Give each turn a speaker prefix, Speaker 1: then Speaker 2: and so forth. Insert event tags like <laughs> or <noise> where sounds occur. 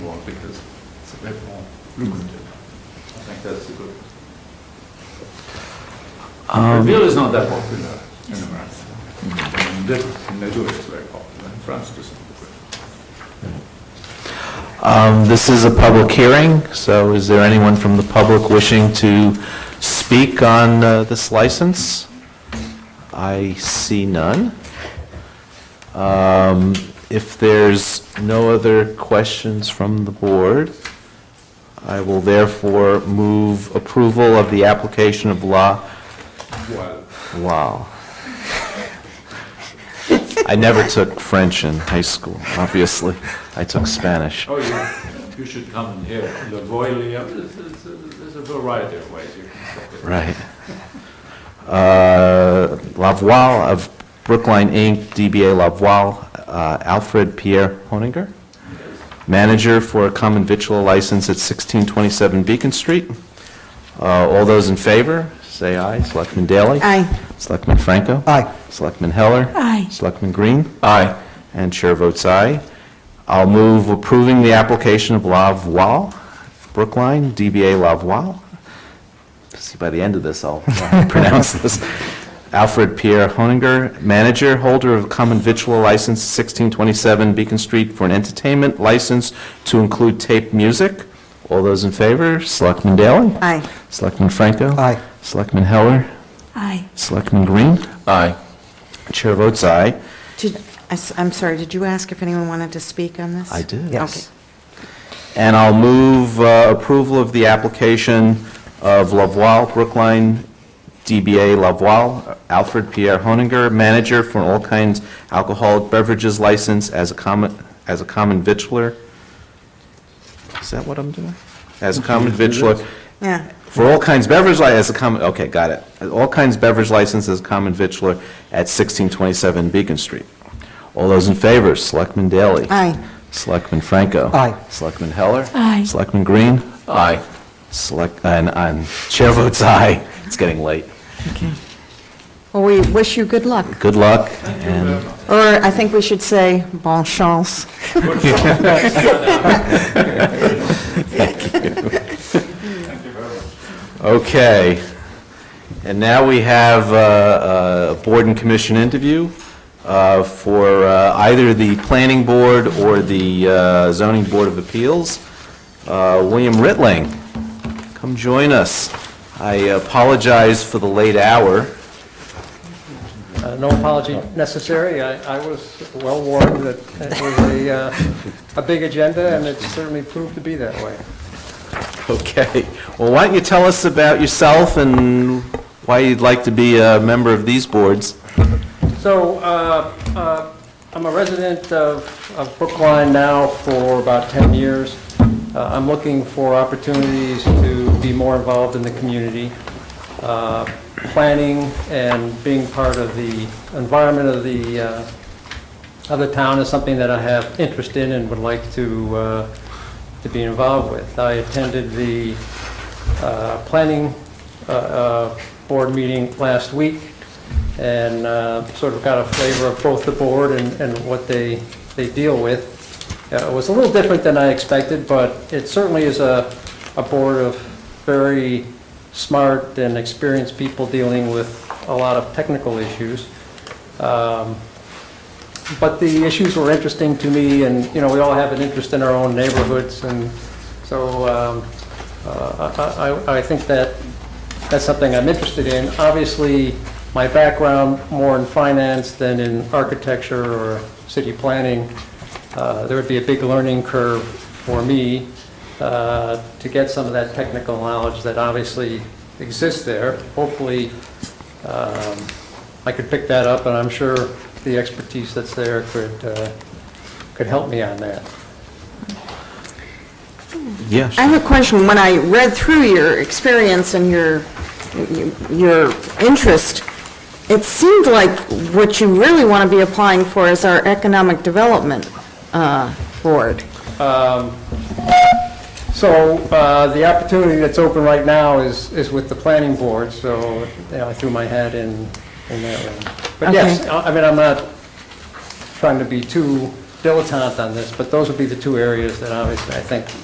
Speaker 1: because it's a bit more
Speaker 2: Mm-hmm.
Speaker 1: lucrative. I think that's a good.
Speaker 2: Um,
Speaker 1: Beer is not that popular in America. In Britain, in Madrid, it's very popular, in France, it isn't.
Speaker 2: Um, This is a public hearing, so is there anyone from the public wishing to speak on uh, this license? I see none. Um, If there's no other questions from the board, I will therefore move approval of the application of law.
Speaker 1: Well,
Speaker 2: Wow. I never took French in high school, obviously. I took Spanish.
Speaker 1: oh, you, you should come and hear the Voilia, there's, there's a- there's a variety of ways you can say it.
Speaker 2: Right. Uh, Lavoie of Brookline Inc., DBA Lavoie, uh, Alfred Pierre Honinger, manager for a common victual license at 1627 Beacon Street. Uh, All those in favor, say aye. Selectman Daley?
Speaker 3: Aye.
Speaker 2: Selectman Franco?
Speaker 4: Aye.
Speaker 2: Selectman Heller?
Speaker 3: Aye.
Speaker 2: Selectman Green? Aye. And chair votes aye. I'll move approving the application of La Voile, Brookline, DBA La Voile. See, by the end of this, I'll <laughs> pronounce this. Alfred Pierre Honinger, manager, holder of common victual license 1627 Beacon Street for an entertainment license to include tape music. All those in favor? Selectman Daley?
Speaker 3: Aye.
Speaker 2: Selectman Franco?
Speaker 4: Aye.
Speaker 2: Selectman Heller?
Speaker 3: Aye.
Speaker 2: Selectman Green? Aye. Chair votes aye.
Speaker 3: Did, I s- I'm sorry, did you ask if anyone wanted to speak on this?
Speaker 2: I did.
Speaker 4: Yes.
Speaker 2: And I'll move uh, approval of the application of Lavoie Brookline DBA Lavoie, Alfred Pierre Honinger, manager for all kinds alcoholic beverages license as a common, as a common victualler. Is that what I'm doing? As a common victualler.
Speaker 3: Yeah,
Speaker 2: For all kinds beverage li, as a common, okay, got it. All kinds beverage license as common victualler at 1627 Beacon Street. All those in favor, Selectman Daley?
Speaker 3: Aye.
Speaker 2: Selectman Franco?
Speaker 4: Aye.
Speaker 2: Selectman Heller?
Speaker 3: Aye.
Speaker 2: Selectman Green? Aye. Select, and, and chair votes aye. It's getting late.
Speaker 3: okay. Well, we wish you good luck,
Speaker 2: Good luck, and
Speaker 3: or I think we should say bon chance.
Speaker 2: Okay. And now we have uh, a board and commission interview uh, for uh, either the planning board or the uh, zoning board of appeals. Uh, William Ritling, come join us. I apologize for the late hour. <laughs>
Speaker 5: Uh, No apology necessary. I I was well warned that it was a, uh, a big agenda, and it certainly proved to be that way.
Speaker 2: Okay. Well, why don't you tell us about yourself and why you'd like to be a member of these boards?
Speaker 5: So uh, uh, I'm a resident of of Brookline now for about 10 years. Uh, I'm looking for opportunities to be more involved in the community. Uh, Planning and being part of the environment of the, uh, of the town is something that I have interest in and would like to, uh, to be involved with. I attended the uh, planning uh, uh, board meeting last week and uh, sort of got a flavor of both the board and and what they, they deal with. Uh, It was a little different than I expected, but it certainly is a, a board of very smart and experienced people dealing with a lot of technical issues. Um, but the issues were interesting to me, and, you know, we all have an interest in our own neighborhoods, and so um, uh, I I- I think that, that's something I'm interested in. Obviously, my background more in finance than in architecture or city planning, uh, there would be a big learning curve for me uh, to get some of that technical knowledge that obviously exists there. Hopefully, um, I could pick that up, and I'm sure the expertise that's there could, uh, could help me on that.
Speaker 2: Yes.
Speaker 3: I have a question. When I read through your experience and your, your interest, it seemed like what you really want to be applying for is our Economic Development uh, Board.
Speaker 5: So uh, the opportunity that's open right now is, is with the planning board, so you know, I threw my hat in, in that one. But yes,
Speaker 3: Okay.
Speaker 5: I I mean, I'm not trying to be too dilettante on this, but those would be the two areas that obviously I think